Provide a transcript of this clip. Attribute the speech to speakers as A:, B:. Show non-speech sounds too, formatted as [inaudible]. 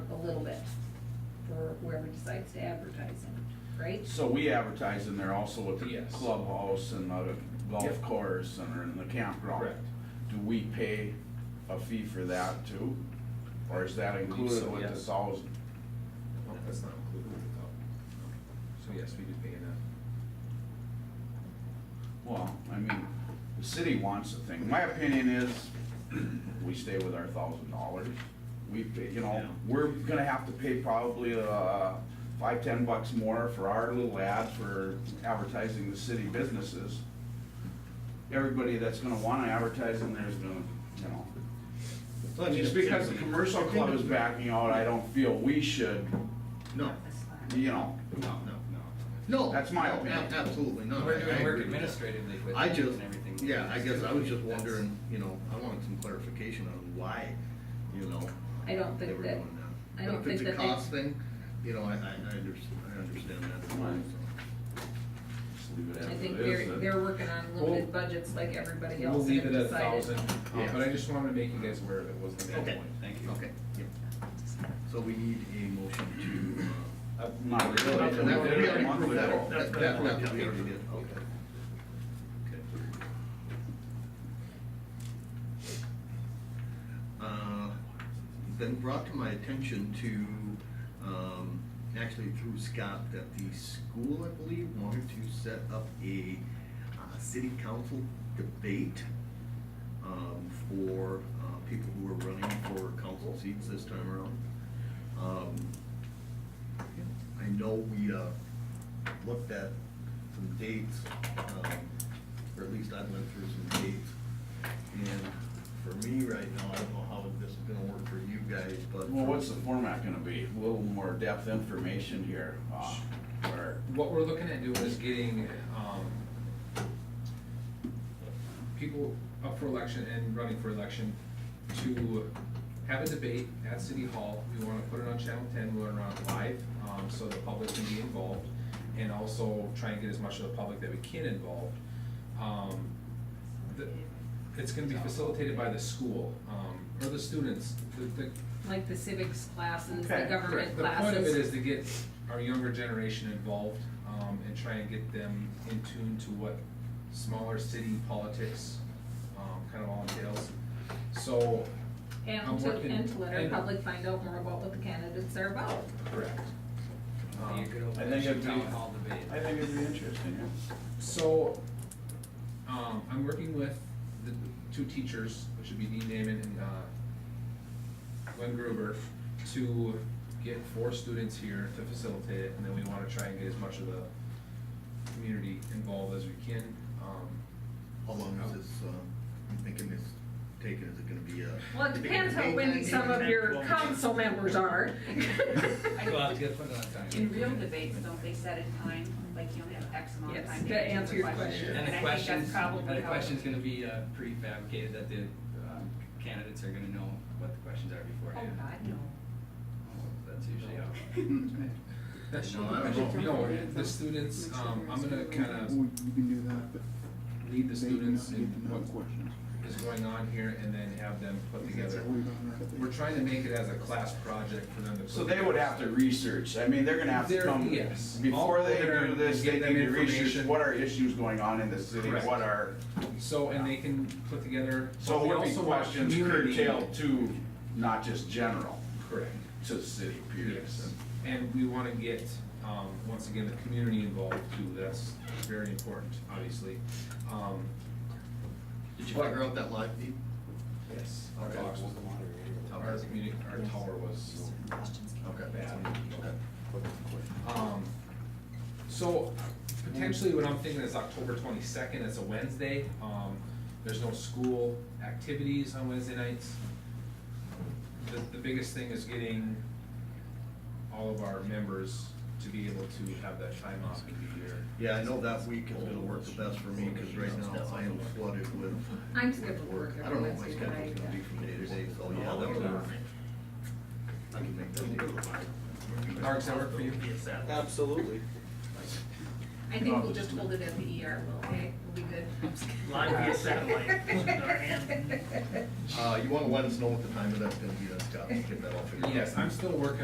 A: little bit for whoever decides to advertise it, right?
B: So we advertise in there also at the
C: Yes.
B: clubhouse and at a golf
C: Yep.
B: course and in the campground.
C: Correct.
B: Do we pay a fee for that too? Or is that
C: I believe
B: included
C: so,
B: with the
C: yes.
B: thousand?
D: No, that's not included with the top.
C: So yes, we do pay that.
B: Well, I mean, the city wants the thing. My opinion is, we stay with our thousand dollars. We, pay- you know,
C: Yeah.
B: we're gonna have to pay probably, uh, five, ten bucks more for our little ad for advertising the city businesses. Everybody that's gonna wanna advertise in there's gonna, you know. Just because the commercial club is backing out, I don't feel we should,
D: No,
B: you know,
D: no, no, no. No.
B: That's my
D: no,
B: opinion.
D: ab- Absolutely not.
C: We're
D: I- I
C: doing work
D: agree with that.
C: administratively with
D: I
C: it
D: just,
C: and everything.
D: yeah, I guess I was just
C: That's-
D: wondering, you know, I wanted some clarification on why, you know.
A: I don't
D: they
A: think
D: were
A: that-
D: doing that.
A: I
D: But
A: don't think
D: If it's
A: that
D: a
A: they-
D: cost thing, you know, I, I, I understand, I understand that as well,
B: Right.
D: so.
B: just leave it as
A: I think
B: it
A: they're,
B: is. uh, and-
A: they're working on limited budgets like everybody
C: uh, We'll
A: else and
C: leave
A: have
C: it at a
A: decided.
C: thousand, uh, but I just wanted to make you guys aware of it, was the main
D: Okay.
C: point, thank you.
D: Okay, yep. So we need a motion to, uh,
B: Not really.
D: That-
B: We did
D: that- we
B: it a
D: already
B: month
D: proved that.
B: ago.
D: That- that- that we already did, okay. Okay. Uh, Been brought to my attention to, um, actually through Scott, that the school, I believe, wanted to set up a, uh, city council debate, um, for, uh, people who are running for council seats this time around. Um, I know we, uh, looked at some dates, um, or at least I went through some dates. And for me right now, I don't know how this is gonna work for you guys, but.
B: Well, what's the format gonna be? A little more depth information here, uh, where,
C: What we're looking at doing is getting, um, people up for election and running for election to have a debate at City Hall. We wanna put it on Channel ten, we wanna run it live, um, so the public can be involved, and also try and get as much of the public that we can involved. Um, the, it's gonna be facilitated by the school, um, or the students, the, the
A: Like the civics classes, the
B: Okay,
A: government
C: Correct. The point of it is
A: classes.
C: to get our younger generation involved, um, and try and get them in tune to what smaller city politics, um, kind of all entails. So, I'm
A: And to,
C: working-
A: and to let our
C: and-
A: public find out more about what the candidates are about.
C: correct. Um,
E: You could
B: I
E: open
B: think
E: a
B: it'd be-
E: town hall debate.
B: I think it'd be interesting, yeah.
C: So, um, I'm working with the two teachers, which would be Dean Damon and, uh, Glenn Gruber, to get four students here to facilitate it, and then we wanna try and get as much of the community involved as we can, um.
D: How long is this, uh, I'm thinking this taking, is it gonna be a?
A: Well, it depends how windy some of your council members are.
E: Go out, get put on time.
F: In real debates, don't they set a time, like you only have X amount of
A: Yes,
F: time?
A: to answer your question.
E: And
F: I
E: the
F: think that's
E: question's,
F: probably
E: and the
F: how-
E: question's gonna be uh, prefabricated, that the um, candidates are gonna know what the questions are
F: Oh,
E: beforehand.
F: God, no.
E: Oh, That's usually how.
C: That's
D: No, I
C: [laughs]
D: don't
C: No, the students, um, I'm gonna kinda
G: You can do that, but
C: lead the
G: they
C: students
G: need
C: in
G: to know the
C: what
G: questions.
C: is going on here and then have them put together.
G: We've done that at the-
C: We're trying to make it as a class project for them to. put
B: So they would have to research, I mean, they're gonna have to
C: They're-
B: come,
C: yes.
B: before they
C: All there
B: do this,
C: and get
B: they
C: them
B: need to research
C: information.
B: what are issues going on in the city,
C: Correct.
B: what are,
C: So, and they can put together.
B: so
C: we
B: it would be
C: also want
B: questions
C: community-
B: curtailed to, not just general,
C: Correct,
B: to the city, period.
C: yes. And we wanna get, um, once again, the community involved too, that's very important, obviously. Um,
D: Did you figure out that live feed?
C: yes, our box was the moderator. Our community, our tower was
D: Okay.
C: bad.
D: Okay.
C: Um, so potentially what I'm thinking is October twenty-second, it's a Wednesday, um, there's no school activities on Wednesday nights. The, the biggest thing is getting all of our members to be able to have that time off and be here.
D: Yeah, I know that week is gonna work the best for me, cause right now I am flooded with
A: I'm scheduled to work
D: work. I
A: every
D: don't know what my
A: Wednesday
D: schedule's
A: night.
D: gonna be from day to day, so yeah, that would work. I can make that work.
C: Mark, does that work for you?
H: Absolutely.
A: I think we'll just hold it at the ER, we'll, okay, we'll be good.
H: Live via satellite.
A: [laughs]
D: Uh, you wanna let us know what the time of that's gonna be, that's got, get that all figured out.
C: Yes, I'm still working